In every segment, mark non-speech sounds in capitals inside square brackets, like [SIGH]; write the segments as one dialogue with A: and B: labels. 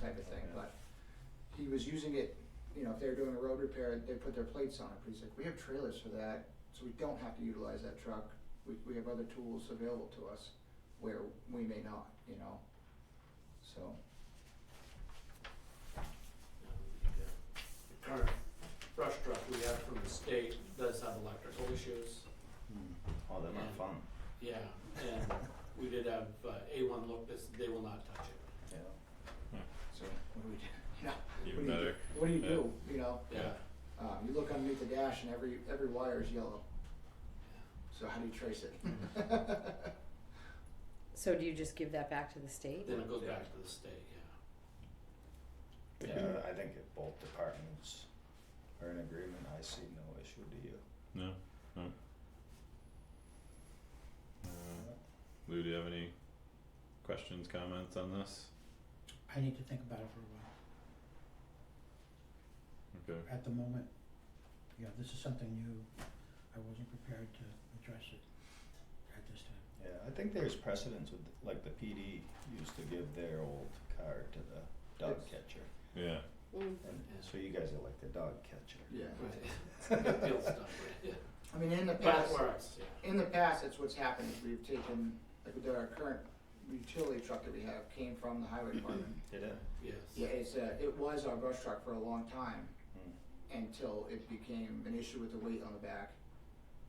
A: type of thing, but he was using it, you know, if they were doing a road repair, they put their plates on it, but he's like, we have trailers for that, so we don't have to utilize that truck. We, we have other tools available to us where we may not, you know, so.
B: The current brush truck we have from the state does have electrical issues.
C: Oh, they're not
B: Yeah.
C: fun.
B: Yeah, and we did have uh, A1 look, this, they will not touch it.
C: Yeah.
A: So what do [LAUGHS] we do? You know,
D: Even
A: what do you
D: better.
A: do? What do you
D: Yeah.
A: do? You know,
B: Yeah,
A: uh, you look underneath the dash and every every wire is yellow. So how do you trace it?
B: Mm-hmm.
E: So do you just give that back to the state?
B: then it goes back to the state, yeah.
C: Yeah, Uh, I think if both departments are in agreement, I see no issue to you.
D: No, no. Uh, Lou, do you have any questions, comments on this?
F: I need to think about it for a while.
D: Okay,
F: At the moment, you know, this is something new. I wasn't prepared to address it at this time.
C: Yeah, I think there's precedence with, like the PD used to give their old car to the dog
A: Yes.
C: catcher.
D: yeah,
E: Mm.
C: And so you guys are like the dog catcher.
A: [LAUGHS] yeah.
B: [LAUGHS] Right. It feels stuff, right, yeah.
A: I mean, in the
B: But
A: past,
B: it works, yeah.
A: in the past, that's what's happened. Is we've taken like we did our current utility truck that we have came from the highway department.
C: Did it?
B: Yes.
A: yeah, it's uh, it was our brush truck for a long time
C: Hmm.
A: until it became an issue with the weight on the back.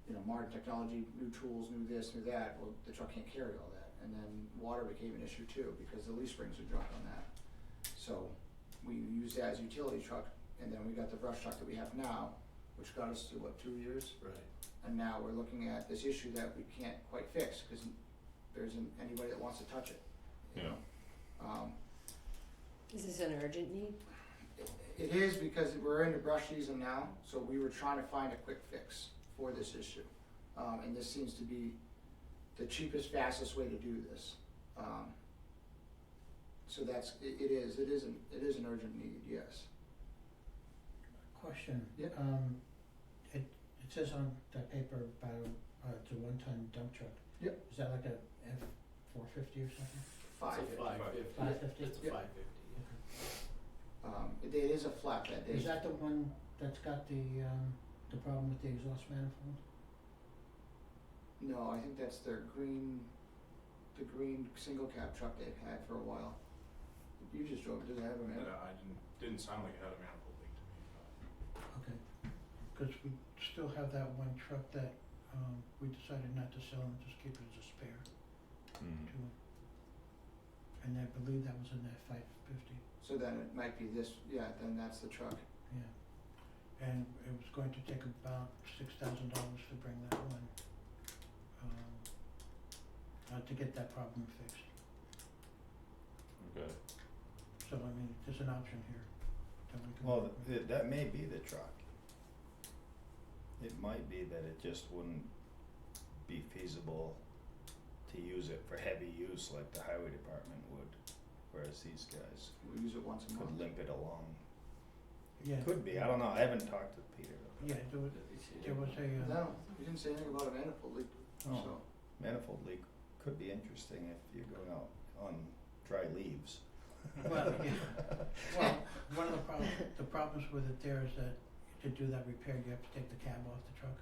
A: You know, modern technology, new tools, new this, new that. Well, the truck can't carry all that. And then water became an issue too because the leaf springs would drop on that. So we used that as a utility truck, and then we got the brush truck that we have now, which got us to what two years.
B: Right,
A: And now we're looking at this issue that we can't quite fix because there isn't anybody that wants to touch it. you
D: Yeah.
A: know? Um,
E: Is this an urgent need?
A: it- it is because we're into brush season now, so we were trying to find a quick fix for this issue. Um, and this seems to be the cheapest, fastest way to do this. Um, so that's, it, it is, it isn't, it is an urgent need, yes.
F: Question.
A: Yeah.
F: Um, it, it says on that paper about, uh, it's a one-ton dump truck.
A: Yeah.
F: Is that like a F four fifty or something?
A: Five.
B: it's a five fifty.
F: Five fifty?
B: It's a
A: Yeah.
B: five fifty,
A: Um, it it is a flatbed. They-
F: Is that the one that's got the, um, the problem with the exhaust manifold?
A: No, I think that's their green, the green single cab truck they've had for a while. You just drove, it, does it have a
G: No,
A: man?
G: uh, I didn't, didn't sound like it had a manifold leak to me, but.
F: Okay. Cause we still have that one truck that, um, we decided not to sell and just keep it as a spare.
D: mm,
F: to it. And I believe that was in that five fifty,
A: So then it might be this, yeah, then that's the truck.
F: yeah. And it was going to take about six thousand dollars to bring that one, um, uh, to get that problem fixed.
D: okay,
F: So I mean, there's an option here that we can.
C: Well, th- that may be the truck. It might be that it just wouldn't be feasible to use it for heavy use like the highway department would, whereas these guys
A: We use it once a
C: could
A: month.
C: limp it along.
F: Yeah.
C: Could be, I don't know, I haven't talked to Peter.
F: Yeah, there was, there was a, uh,
A: No, you didn't say anything about a manifold leak,
C: Oh.
A: so,
C: Manifold leak could be interesting if you're going out on dry leaves.
F: [LAUGHS] well, yeah. Well, one of the problems, the problems with it there is that to do that repair, you have to take the cab off the truck,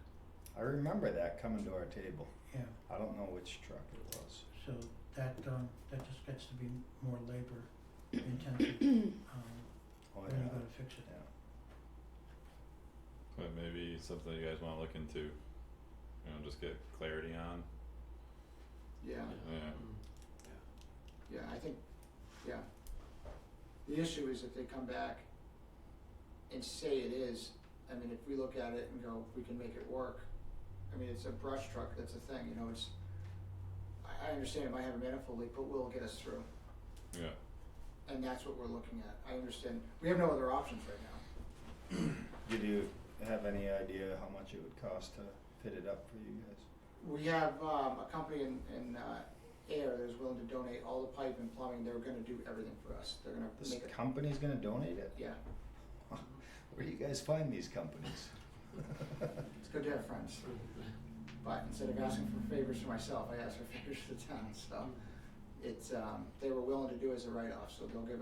C: I remember that coming to our table.
F: yeah.
C: I don't know which truck it was.
F: So that, um, that just gets to be more labor intensive, um,
C: Oh,
F: when
C: yeah,
F: you gotta fix it.
C: yeah.
D: but maybe something you guys wanna look into, you know, just get clarity on,
A: yeah,
D: Yeah.
B: Mm.
A: yeah, I think, yeah. The issue is if they come back and say it is, I mean, if we look at it and go, we can make it work. I mean, it's a brush truck, that's the thing, you know, it's, I, I understand it might have a manifold leak, but will get us through.
D: yeah,
A: And that's what we're looking at. I understand. We have no other options right now.
C: Did you have any idea how much it would cost to fit it up for you guys?
A: We have um, a company in, in uh, Air that is willing to donate all the pipe and plumbing. They're going to do everything for us. They're going to
C: This
A: make it.
C: company's gonna donate it? [LAUGHS]
A: Yeah,
C: Where do you guys find these companies? [LAUGHS]
A: it's good to have friends.
B: Mm-hmm.
A: But instead of asking for favors for [LAUGHS] myself, I ask for favors for the town. So it's um, they were willing to do as a write off. So they'll give us.